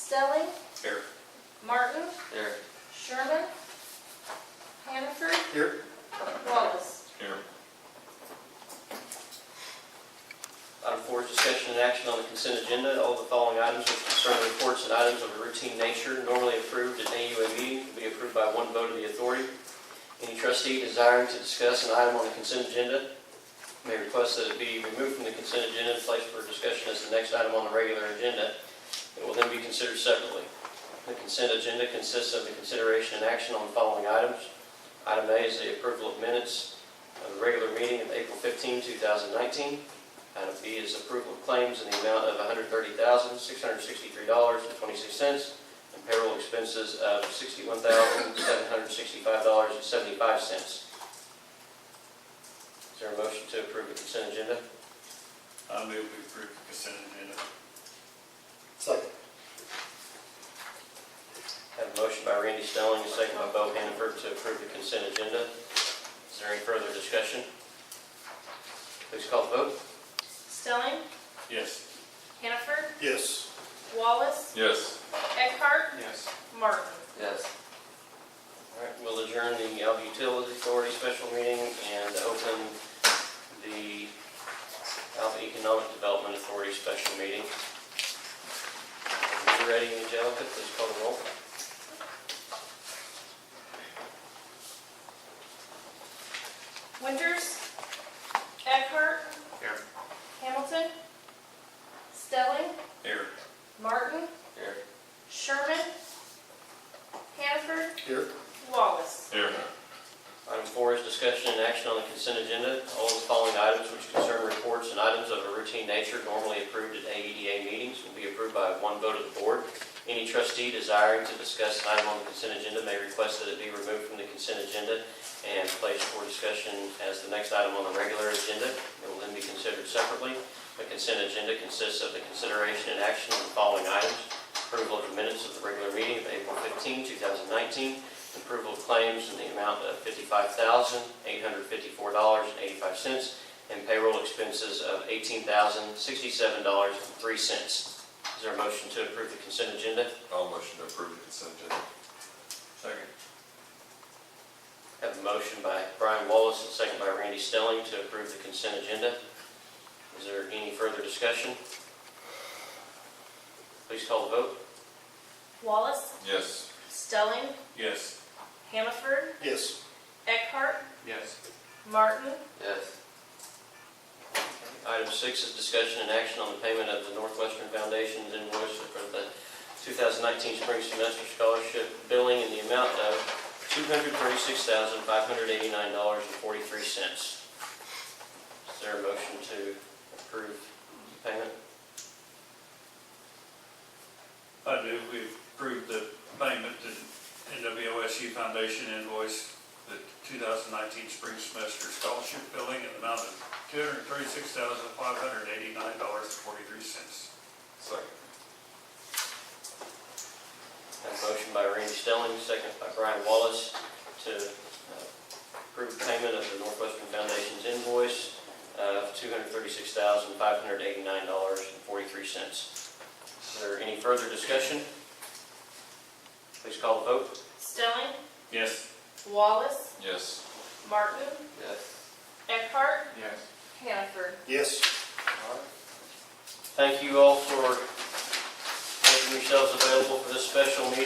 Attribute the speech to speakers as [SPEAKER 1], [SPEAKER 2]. [SPEAKER 1] Stelling,
[SPEAKER 2] Here.
[SPEAKER 1] Martin,
[SPEAKER 2] Here.
[SPEAKER 1] Sherman, Hannaford,
[SPEAKER 2] Here.
[SPEAKER 1] Wallace.
[SPEAKER 2] Here. Item four is discussion and action on the consent agenda. All the following items which concern reports and items of a routine nature normally approved at an AUA meeting will be approved by one vote of the authority. Any trustee desiring to discuss an item on the consent agenda may request that it be removed from the consent agenda and placed for discussion as the next item on the regular agenda. It will then be considered separately. The consent agenda consists of the consideration and action on the following items. Item A is the approval of minutes of the regular meeting of April 15, 2019. Item B is approval of claims in the amount of $130,663.26 and payroll expenses of $61,765.75. Is there a motion to approve the consent agenda?
[SPEAKER 3] I move we approve the consent agenda.
[SPEAKER 4] Second.
[SPEAKER 2] I Have a motion by Randy Stelling, a second by Bo Hannaford to approve the consent agenda. Is there any further discussion? Please call the vote.
[SPEAKER 1] Stelling,
[SPEAKER 3] Yes.
[SPEAKER 1] Hannaford,
[SPEAKER 4] Yes.
[SPEAKER 1] Wallace,
[SPEAKER 5] Yes.
[SPEAKER 1] Eckhart,
[SPEAKER 3] Yes.
[SPEAKER 1] Martin.
[SPEAKER 5] Yes.
[SPEAKER 2] All right, we'll adjourn the Alva Utilities Authority special meeting and open the Alva Economic Development Authority special meeting. If you're ready, Angelica, please call the roll.
[SPEAKER 1] Winters, Eckhart.
[SPEAKER 3] Here.
[SPEAKER 1] Hamilton, Stelling,
[SPEAKER 3] Here.
[SPEAKER 1] Martin,
[SPEAKER 2] Here.
[SPEAKER 1] Sherman, Hannaford,
[SPEAKER 4] Here.
[SPEAKER 1] Wallace.
[SPEAKER 5] Here.
[SPEAKER 2] Item four is discussion and action on the consent agenda. All of the following items which concern reports and items of a routine nature normally approved at AEDA meetings will be approved by one vote of the board. Any trustee desiring to discuss an item on the consent agenda may request that it be removed from the consent agenda and placed for discussion as the next item on the regular agenda. It will then be considered separately. The consent agenda consists of the consideration and action on the following items. Approval of the minutes of the regular meeting of April 15, 2019, approval of claims in the amount of $55,854.85 and payroll expenses of $18,067.03. Is there a motion to approve the consent agenda?
[SPEAKER 5] I'll motion to approve the consent agenda.
[SPEAKER 3] Second.
[SPEAKER 2] Have a motion by Brian Wallace and a second by Randy Stelling to approve the consent agenda. Is there any further discussion? Please call the vote.
[SPEAKER 1] Wallace,
[SPEAKER 5] Yes.
[SPEAKER 1] Stelling,
[SPEAKER 3] Yes.
[SPEAKER 1] Hannaford,
[SPEAKER 4] Yes.
[SPEAKER 1] Eckhart,
[SPEAKER 3] Yes.
[SPEAKER 1] Martin,
[SPEAKER 2] Yes. Item six is discussion and action on the payment of the Northwestern Foundation's invoice for the 2019 spring semester scholarship billing in the amount of $236,589.43. Is there a motion to approve the payment?
[SPEAKER 3] I do, we approve the payment to NWOSU Foundation invoice, the 2019 spring semester scholarship billing in the amount of
[SPEAKER 5] Second.
[SPEAKER 3] $236,589.43.
[SPEAKER 2] Have a motion by Randy Stelling, second by Brian Wallace to uh, approve payment of the Northwestern Foundation's invoice of $236,589.43. Is there any further discussion? Please call the vote.
[SPEAKER 1] Stelling,
[SPEAKER 3] Yes.
[SPEAKER 1] Wallace,
[SPEAKER 5] Yes.
[SPEAKER 1] Martin,
[SPEAKER 5] Yes.
[SPEAKER 1] Eckhart,
[SPEAKER 3] Yes.
[SPEAKER 1] Hannaford.
[SPEAKER 4] Yes.
[SPEAKER 2] Thank you all for making yourselves available for this special meeting.